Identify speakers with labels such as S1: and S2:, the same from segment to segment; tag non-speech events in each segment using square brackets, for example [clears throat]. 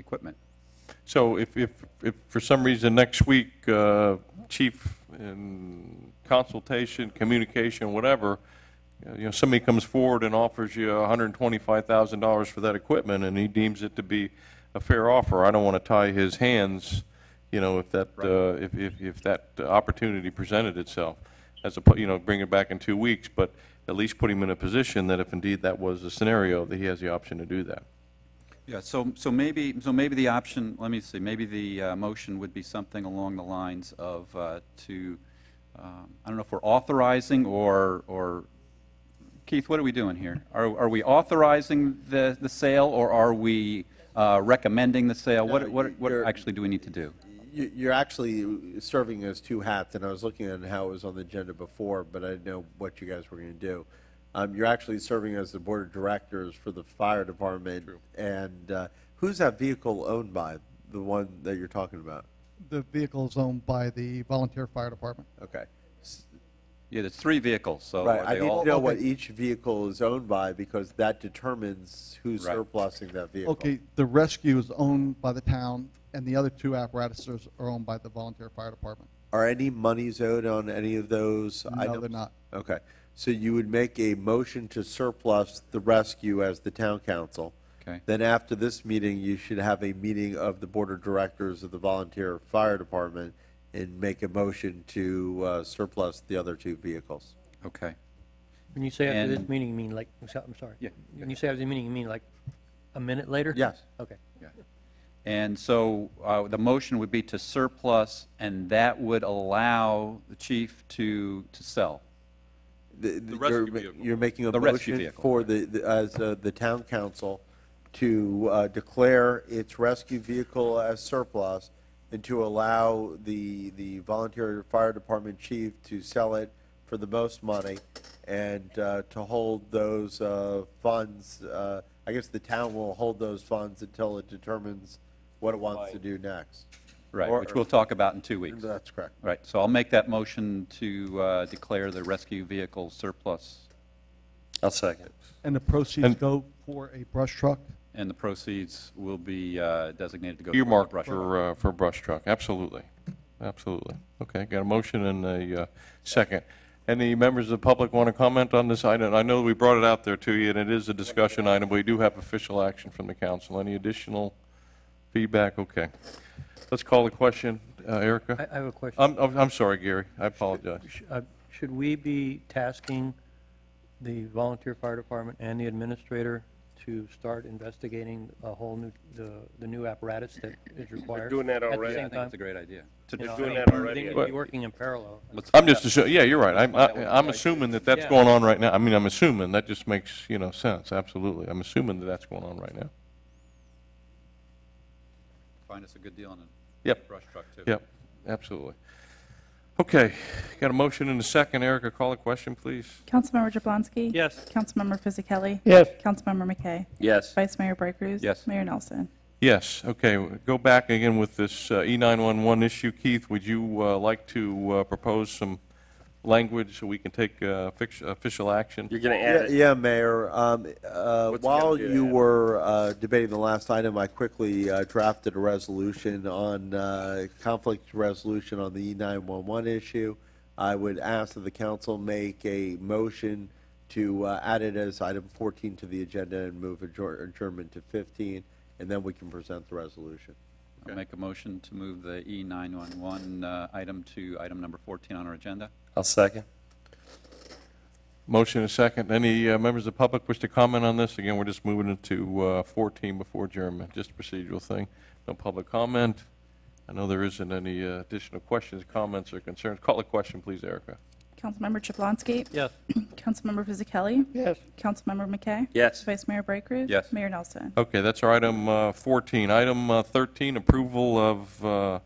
S1: equipment.
S2: So if, if, if for some reason next week, uh, chief in consultation, communication, whatever, uh, you know, somebody comes forward and offers you $125,000 for that equipment and he deems it to be a fair offer, I don't want to tie his hands, you know, if that, uh, if, if, if that opportunity presented itself. As a, you know, bring it back in two weeks, but at least put him in a position that if indeed that was the scenario, that he has the option to do that.
S1: Yeah, so, so maybe, so maybe the option, let me see, maybe the uh, motion would be something along the lines of uh, to, um, I don't know if we're authorizing or, or, Keith, what are we doing here? Are, are we authorizing the, the sale, or are we uh, recommending the sale? What, what, what
S3: you're-
S1: actually do we need to do?
S3: You- You're actually serving as two hats, and I was looking at how it was on the agenda before, but I didn't know what you guys were going to do. Um, You're actually serving as the board of directors for the fire department. And uh, who's that vehicle owned by, the one that you're talking about?
S4: The vehicle is owned by the volunteer fire department.
S3: Okay.
S1: Yeah, there's three vehicles, so
S3: Right,
S1: are Oh,
S3: I
S1: they
S3: need to
S1: all?
S3: know what each vehicle is owned by, because that determines who's
S1: Right.
S3: surplusing that vehicle.
S4: Okay, the rescue is owned by the town, and the other two apparatuses are owned by the volunteer fire department.
S3: Are any monies owed on any of those
S4: No,
S3: items?
S4: they're not.
S3: Okay, so you would make a motion to surplus the rescue as the town council.
S1: Okay.
S3: Then after this meeting, you should have a meeting of the board of directors of the volunteer fire department and make a motion to uh, surplus the other two vehicles.
S1: Okay.
S5: When you say after this
S1: And-
S5: meeting, you mean like, I'm so- I'm sorry.
S1: Yeah,
S5: When you say after the meeting, you mean like a minute later?
S3: Yes.
S5: Okay.
S1: And so uh, the motion would be to surplus, and that would allow the chief to, to sell.
S3: The
S2: rescue
S3: you're ma-
S2: vehicle.
S3: You're making a
S1: The rescue
S3: motion
S1: vehicle,
S3: for
S1: right.
S3: the, the- as uh, the town council to uh, declare its rescue vehicle as surplus and to allow the, the volunteer fire department chief to sell it for the most money and uh, to hold those uh, funds, uh, I guess the town will hold those funds until it determines what it wants to do next.
S1: Right,
S3: Or-
S1: which we'll talk about in two weeks.
S3: That's correct.
S1: Right, so I'll make that motion to uh, declare the rescue vehicle surplus,
S6: I'll second.
S4: And the proceeds
S2: And-
S4: go for a brush truck.
S1: and the proceeds will be uh, designated to go toward the
S2: earmarked
S1: brush.
S2: for, uh, for brush truck, absolutely, absolutely. Okay, got a motion and a uh, second. Any members of the public want to comment on this item? I know we brought it out there to you, and it is a discussion item, but we do have official action from the council. Any additional feedback? Okay. Let's call the question, Uh,
S5: I,
S2: Erica?
S5: I have a question.
S1: Um,
S2: I'm, I'm I'm sorry, Gary, I apologize.
S5: Sh- uh, Should we be tasking the volunteer fire department and the administrator to start investigating a whole new, the, the new apparatus that is required?
S6: doing that already.
S1: Yeah, I
S5: At the
S1: think
S5: same
S1: it's a
S5: time?
S1: great idea. To
S5: You know,
S1: just-
S5: I
S6: doing
S5: mean,
S6: that
S5: they
S6: already.
S5: need to be working in parallel.
S1: let's
S2: I'm
S1: find
S2: just,
S1: out.
S2: assu- yeah, you're right. I'm,
S1: find out what the
S2: I- I'm
S1: price
S2: assuming that that's
S5: Yeah.
S2: going on right now. I mean, I'm assuming, that just makes, you know, sense, absolutely. I'm assuming that that's going on right now.
S1: Find us a good deal on a
S2: Yep.
S1: brush truck, too.
S2: Yep, absolutely. Okay, got a motion and a second. Erica, call a question, please.
S7: Councilmember Jablonski.
S5: Yes.
S7: Councilmember Fisickelli.
S5: Yes.
S7: Councilmember McKay.
S6: Yes.
S7: Vice Mayor Bright Cruz.
S1: Yes.
S7: Mayor Nelson.
S2: Yes, okay, go back again with this uh, E911 issue. Keith, would you uh, like to uh, propose some language so we can take uh, fix- official action?
S6: You're gonna
S3: Yeah,
S6: add it?
S3: yeah, Mayor. Um, uh,
S6: What's it
S3: While
S6: gonna do to
S3: you
S6: add it?
S3: were uh, debating the last item, I quickly uh, drafted a resolution on uh, conflict resolution on the E E911 issue. I would ask that the council make a motion to uh, add it as item 14 to the agenda and move adjour- adjournment to 15, and then we can present the resolution.
S1: I'll make a motion to move the E E911 uh, item to item number 14 on our agenda.
S6: I'll second.
S2: Motion and a second. Any uh, members of the public wish to comment on this? Again, we're just moving it to uh, 14 before adjournment, just a procedural thing. No public comment. I know there isn't any uh, additional questions, comments, or concerns. Call a question, please, Erica.
S7: Councilmember Jablonski.
S5: Yes.
S7: [clears throat] Councilmember Fisickelli.
S5: Yes.
S7: Councilmember McKay.
S6: Yes.
S7: Vice Mayor Bright Cruz.
S1: Yes.
S7: Mayor Nelson.
S2: Okay, that's our item uh, 14. Item uh, 13, approval of uh,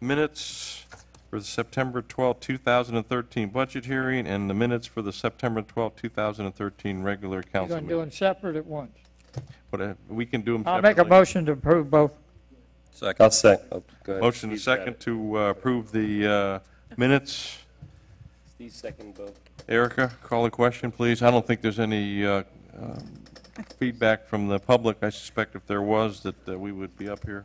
S2: minutes for the September 12, 2013 budget hearing and the minutes for the September 12, 2013 regular
S8: You're
S2: council
S8: going to do them
S2: meeting.
S8: separate at once.
S2: But uh, we can do them
S8: I'll
S2: separately.
S8: make a motion to approve both.
S1: Second.
S6: I'll second. Oh, go ahead.
S2: Motion and
S6: Steve's got
S2: second
S6: it.
S2: to uh, approve the uh, minutes.
S6: Steve second vote.
S2: Erica, call a question, please. I don't think there's any uh, um, feedback from the public, I suspect if there was, that uh, we would be up here.